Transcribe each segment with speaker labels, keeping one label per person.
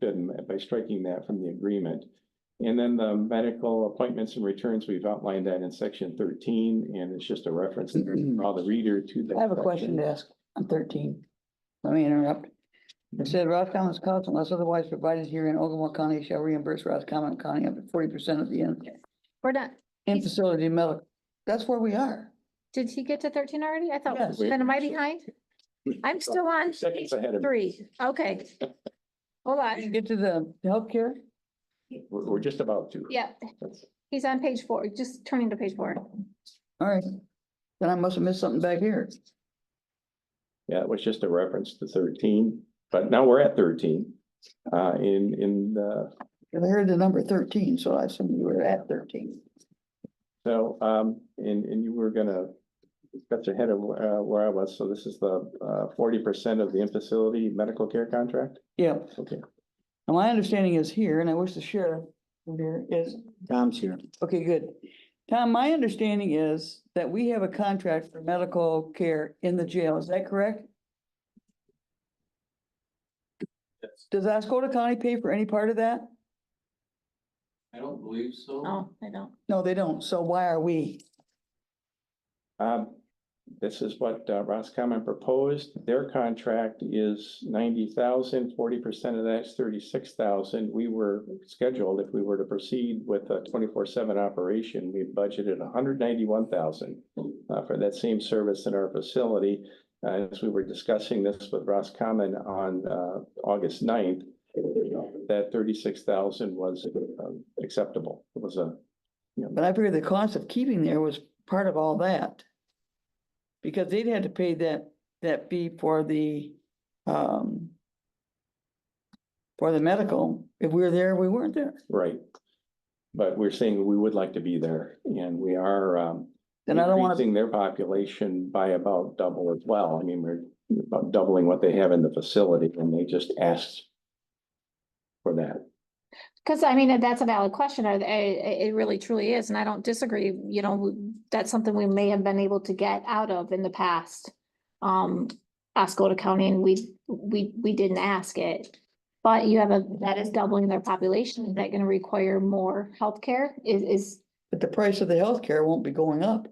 Speaker 1: good in that- by striking that from the agreement. And then the medical appointments and returns, we've outlined that in section thirteen, and it's just a reference to draw the reader to that.
Speaker 2: I have a question to ask on thirteen. Mm-hmm. Let me interrupt. It said Roscommon's cost unless otherwise provided here in Ogama County shall reimburse Roscommon County up to forty percent of the in,
Speaker 3: We're not,
Speaker 2: in facility medical. That's where we are.
Speaker 3: did he get to thirteen already? I thought,
Speaker 2: Yes.
Speaker 3: then am I behind? I'm still on
Speaker 1: Seconds ahead of.
Speaker 3: three. Okay. Hold on.
Speaker 2: Get to the healthcare.
Speaker 1: We're, we're just about to.
Speaker 3: Yeah,
Speaker 1: That's-
Speaker 3: he's on page four, just turning to page four.
Speaker 2: All right. Then I must have missed something back here.
Speaker 1: Yeah, it was just a reference to thirteen, but now we're at thirteen. Uh, in, in the,
Speaker 2: 'Cause I heard the number thirteen, so I assume you were at thirteen.
Speaker 1: so, um, and, and you were gonna. That's ahead of, uh, where I was, so this is the, uh, forty percent of the in-facility medical care contract?
Speaker 2: Yeah.
Speaker 1: Okay.
Speaker 2: And my understanding is here, and I wish the sheriff were here, is
Speaker 4: Tom's here.
Speaker 2: Okay, good. Tom, my understanding is that we have a contract for medical care in the jail. Is that correct? Does Ascota County pay for any part of that?
Speaker 5: I don't believe so.
Speaker 3: No, Oh, I don't.
Speaker 2: No, they don't. So why are we?
Speaker 1: Um, this is what uh, Roscommon proposed. Their contract is ninety thousand. Forty percent of that's thirty-six thousand. We were scheduled, if we were to proceed with a twenty-four seven operation, we budgeted hundred ninety-one thousand uh, for that same service in our facility. Uh, as we were discussing this with Roscommon on, uh, August 9th, that thirty-six thousand was um, acceptable. It was a,
Speaker 2: But I figured the cost of keeping there was part of all that. Because they'd had to pay that, that fee for the, um, for the medical. If we were there, we weren't there.
Speaker 1: Right. But we're saying we would like to be there and we are um.
Speaker 2: Then I don't want to
Speaker 1: Increasing their population by about double as well. I mean, we're about doubling what they have in the facility and they just asked. For that.
Speaker 3: Because I mean, that's a valid question. Are they, it, it really truly is, and I don't disagree, you know, that's something we may have been able to get out of in the past. Um, Ascota County, and we, we, we didn't ask it. But you have a, that is doubling their population. Is that gonna require more healthcare? Is, is,
Speaker 2: But the price of the healthcare won't be going up.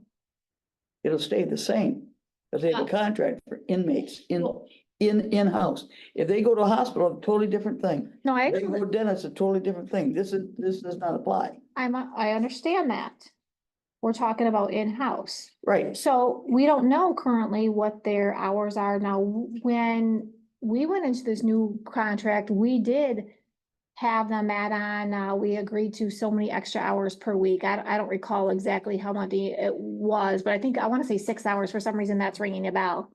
Speaker 2: It'll stay the same, because they have a contract for inmates in, in, in-house. If they go to a hospital, a totally different thing.
Speaker 3: no, I
Speaker 2: If They go
Speaker 3: actually,
Speaker 2: to dentist, a totally different thing. This is, this does not apply.
Speaker 3: I'm, I understand that. We're talking about in-house.
Speaker 2: Right.
Speaker 3: So we don't know currently what their hours are now. When we went into this new contract, we did have them add on, uh, we agreed to so many extra hours per week. I, don't- I don't recall exactly how much it was, but I think, I want to say six hours. For some reason, that's ringing a bell.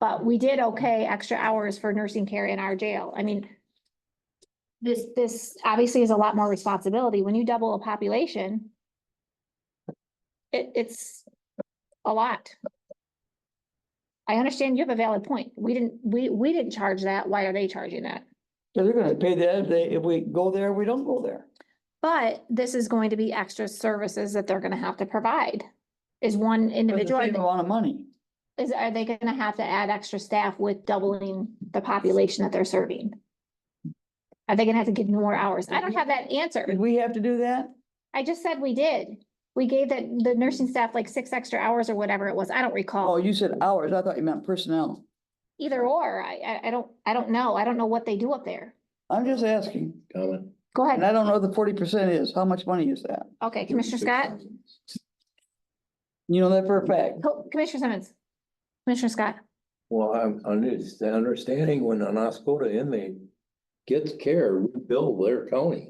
Speaker 3: But we did okay extra hours for nursing care in our jail. I mean, this, this obviously is a lot more responsibility. When you double a population, it, it's a lot. I understand you have a valid point. We didn't, we, we didn't charge that. Why are they charging that?
Speaker 2: So they're gonna pay that if they, if we go there, we don't go there.
Speaker 3: But this is going to be extra services that they're gonna have to provide. Is one
Speaker 2: But it's the
Speaker 3: individual,
Speaker 2: same
Speaker 3: are
Speaker 2: amount of money.
Speaker 3: they- is, are they gonna have to add extra staff with doubling the population that they're serving? Are they gonna have to give more hours? I don't have that answer.
Speaker 2: Did we have to do that?
Speaker 3: I just said we did. We gave that, the nursing staff like six extra hours or whatever it was. I don't
Speaker 2: Oh,
Speaker 3: recall.
Speaker 2: you said hours. I thought you meant personnel.
Speaker 3: Either or, I, I, I don't, I don't know. I don't know what they do up there.
Speaker 2: I'm just asking.
Speaker 4: Comment.
Speaker 3: Go
Speaker 2: And
Speaker 3: ahead.
Speaker 2: I don't know what the forty percent is. How much money is that?
Speaker 3: Okay, Commissioner Scott?
Speaker 2: You know that for a fact.
Speaker 3: Co- Commissioner Simmons. Commissioner Scott.
Speaker 5: Well, I'm, under- it's the understanding when an Oscoda inmate gets care, we bill their county.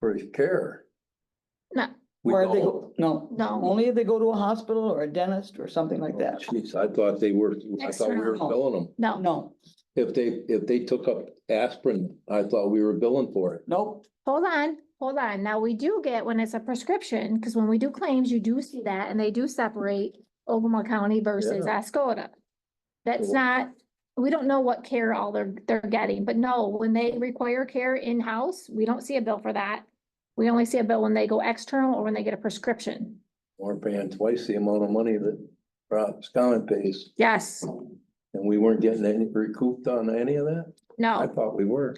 Speaker 5: For his care.
Speaker 3: No.
Speaker 5: We
Speaker 2: Or they
Speaker 5: don't.
Speaker 2: go, no.
Speaker 3: No.
Speaker 2: Only if they go to a hospital or a dentist or something like that.
Speaker 5: Oh, Jeez, I thought they were, I thought we were
Speaker 3: External.
Speaker 5: billing them.
Speaker 3: No.
Speaker 2: No,
Speaker 5: If they, if they took up aspirin, I thought we were billing for it.
Speaker 2: nope.
Speaker 3: Hold on, hold on. Now, we do get when it's a prescription, because when we do claims, you do see that, and they do separate Ogama County versus Ascota. That's
Speaker 5: Cool.
Speaker 3: not, we don't know what care all they're, they're getting, but no, when they require care in-house, we don't see a bill for that. We only see a bill when they go external or when they get a prescription.
Speaker 5: We're paying twice the amount of money that Rob's Common pays,
Speaker 3: Yes,
Speaker 5: and we weren't getting any recouped on any of that? I
Speaker 3: no.
Speaker 5: thought we were.